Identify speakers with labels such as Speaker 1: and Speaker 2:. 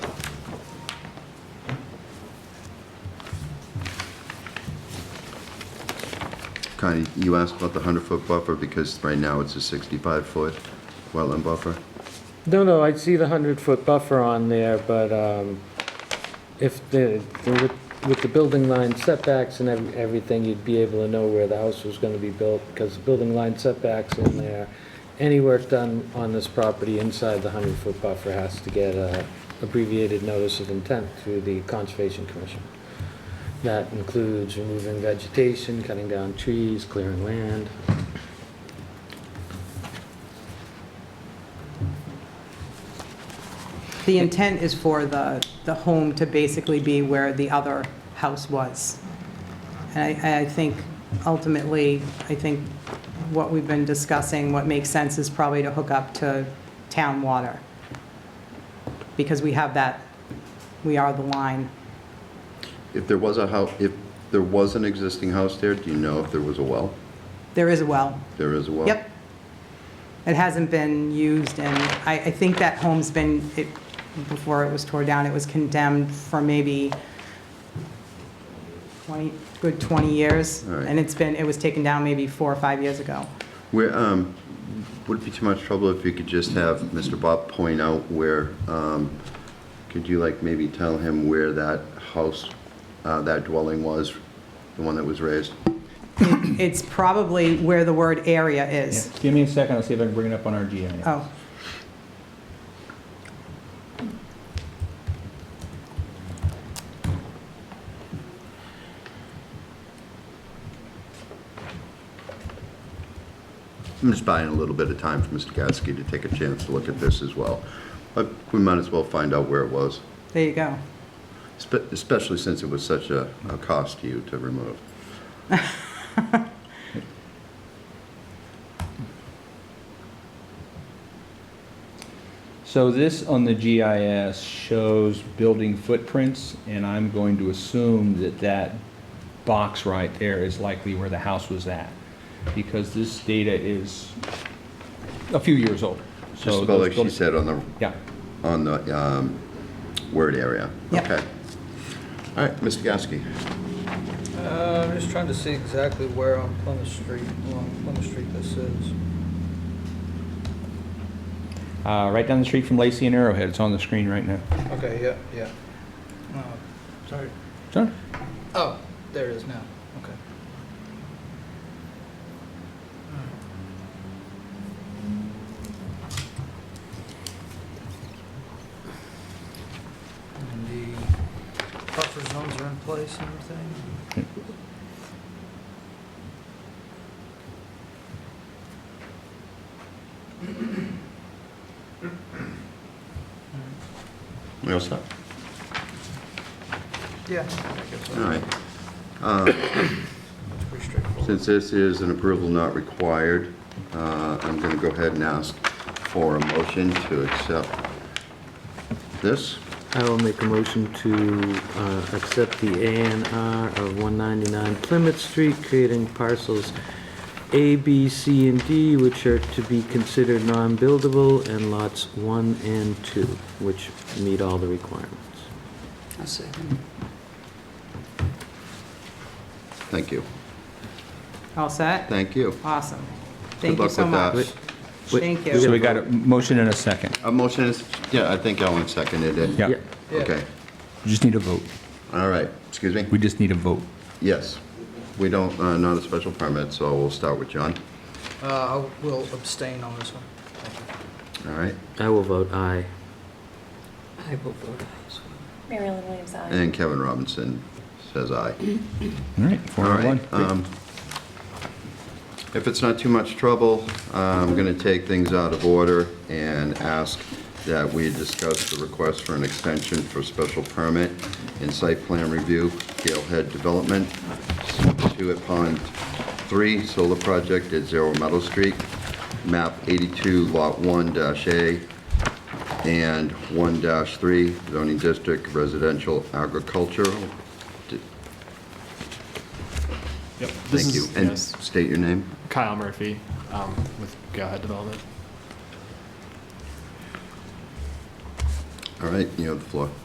Speaker 1: Connie, you asked about the 100-foot buffer because right now it's a 65-foot wetland buffer.
Speaker 2: No, no, I see the 100-foot buffer on there, but um, if the, with- with the building line setbacks and ev- everything, you'd be able to know where the house was going to be built, because the building line setbacks in there, any work done on this property inside the 100-foot buffer has to get a abbreviated notice of intent through the Conservation Commission. That includes removing vegetation, cutting down trees, clearing land.
Speaker 3: The intent is for the, the home to basically be where the other house was. And I, I think ultimately, I think what we've been discussing, what makes sense is probably to hook up to town water. Because we have that, we are the line.
Speaker 1: If there was a house, if there was an existing house there, do you know if there was a well?
Speaker 3: There is a well.
Speaker 1: There is a well?
Speaker 3: Yep. It hasn't been used, and I, I think that home's been, it, before it was tore down, it was condemned for maybe 20, good 20 years.
Speaker 1: All right.
Speaker 3: And it's been, it was taken down maybe four or five years ago.
Speaker 1: Where, um, would it be too much trouble if you could just have Mr. Bob point out where, um, could you like maybe tell him where that house, uh, that dwelling was, the one that was raised?
Speaker 3: It's probably where the word area is.
Speaker 4: Yeah, Give me a second, I'll see if I can bring it up on our GIS.
Speaker 1: Uh,
Speaker 3: Oh,
Speaker 1: I'm just buying a little bit of time for Mr. Gatsky to take a chance to look at this as well. But we might as well find out where it was,
Speaker 3: there you go.
Speaker 1: spe- especially since it was such a, a cost to you to remove.
Speaker 4: So this on the GIS shows building footprints, and I'm going to assume that that box right there is likely where the house was at, because this data is a few years old. So
Speaker 1: Just about
Speaker 4: those
Speaker 1: like she
Speaker 4: buildings-
Speaker 1: said on the,
Speaker 4: Yeah,
Speaker 1: on the, um, word area.
Speaker 3: Yep.
Speaker 1: Okay. All right, Mr. Gatsky.
Speaker 5: Uh, I'm just trying to see exactly where on Plymouth Street, along Plymouth Street this is.
Speaker 4: uh, right down the street from Lacey and Arrowhead, it's on the screen right now.
Speaker 5: Okay, yeah, yeah. Oh, Sorry.
Speaker 4: Sure.
Speaker 5: Oh, there it is now, okay. And the buffer zones are in place and everything?
Speaker 1: We all set?
Speaker 5: Yeah. I guess
Speaker 1: All
Speaker 5: so.
Speaker 1: right.
Speaker 5: It's Pretty straightforward.
Speaker 1: Since this is an approval not required, uh, I'm going to go ahead and ask for a motion to accept this.
Speaker 2: I will make a motion to uh, accept the A and R of 199 Plymouth Street, creating parcels A, B, C, and D, which are to be considered non-buildable, and lots 1 and 2, which meet all the requirements.
Speaker 1: Thank you.
Speaker 3: All set?
Speaker 1: Thank you.
Speaker 3: Awesome. Thank you
Speaker 1: luck
Speaker 3: so
Speaker 1: with that.
Speaker 3: much.
Speaker 2: Wait,
Speaker 3: Thank
Speaker 2: we
Speaker 3: you.
Speaker 4: So we got a motion and a second.
Speaker 1: A motion is, yeah, I think Ellen seconded it.
Speaker 4: Yeah,
Speaker 5: Yeah.
Speaker 1: Okay,
Speaker 4: we just need a vote.
Speaker 1: all right, excuse me?
Speaker 4: We just need a vote.
Speaker 1: Yes. We don't, uh, not a special permit, so we'll start with John.
Speaker 5: Uh, I will abstain on this one.
Speaker 1: All right,
Speaker 2: I will vote aye.
Speaker 5: I will vote aye as well.
Speaker 6: Mary Ellen Williams, aye.
Speaker 1: and Kevin Robinson says aye.
Speaker 4: All right, four
Speaker 1: All
Speaker 4: to
Speaker 1: right,
Speaker 4: one.
Speaker 1: um, If it's not too much trouble, I'm going to take things out of order and ask that we discuss the request for an extension for special permit and site plan review, Galehead Development, Two at Pond 3, solar project at Zero Meadow Street, map 82, lot 1-A, and 1-3, zoning district residential agricultural. D-
Speaker 7: Yep. This
Speaker 1: Thank you.
Speaker 7: is-
Speaker 1: And
Speaker 7: yes.
Speaker 1: state your name.
Speaker 7: Kyle Murphy um, with Go Ahead Development.
Speaker 1: All right, you have the floor.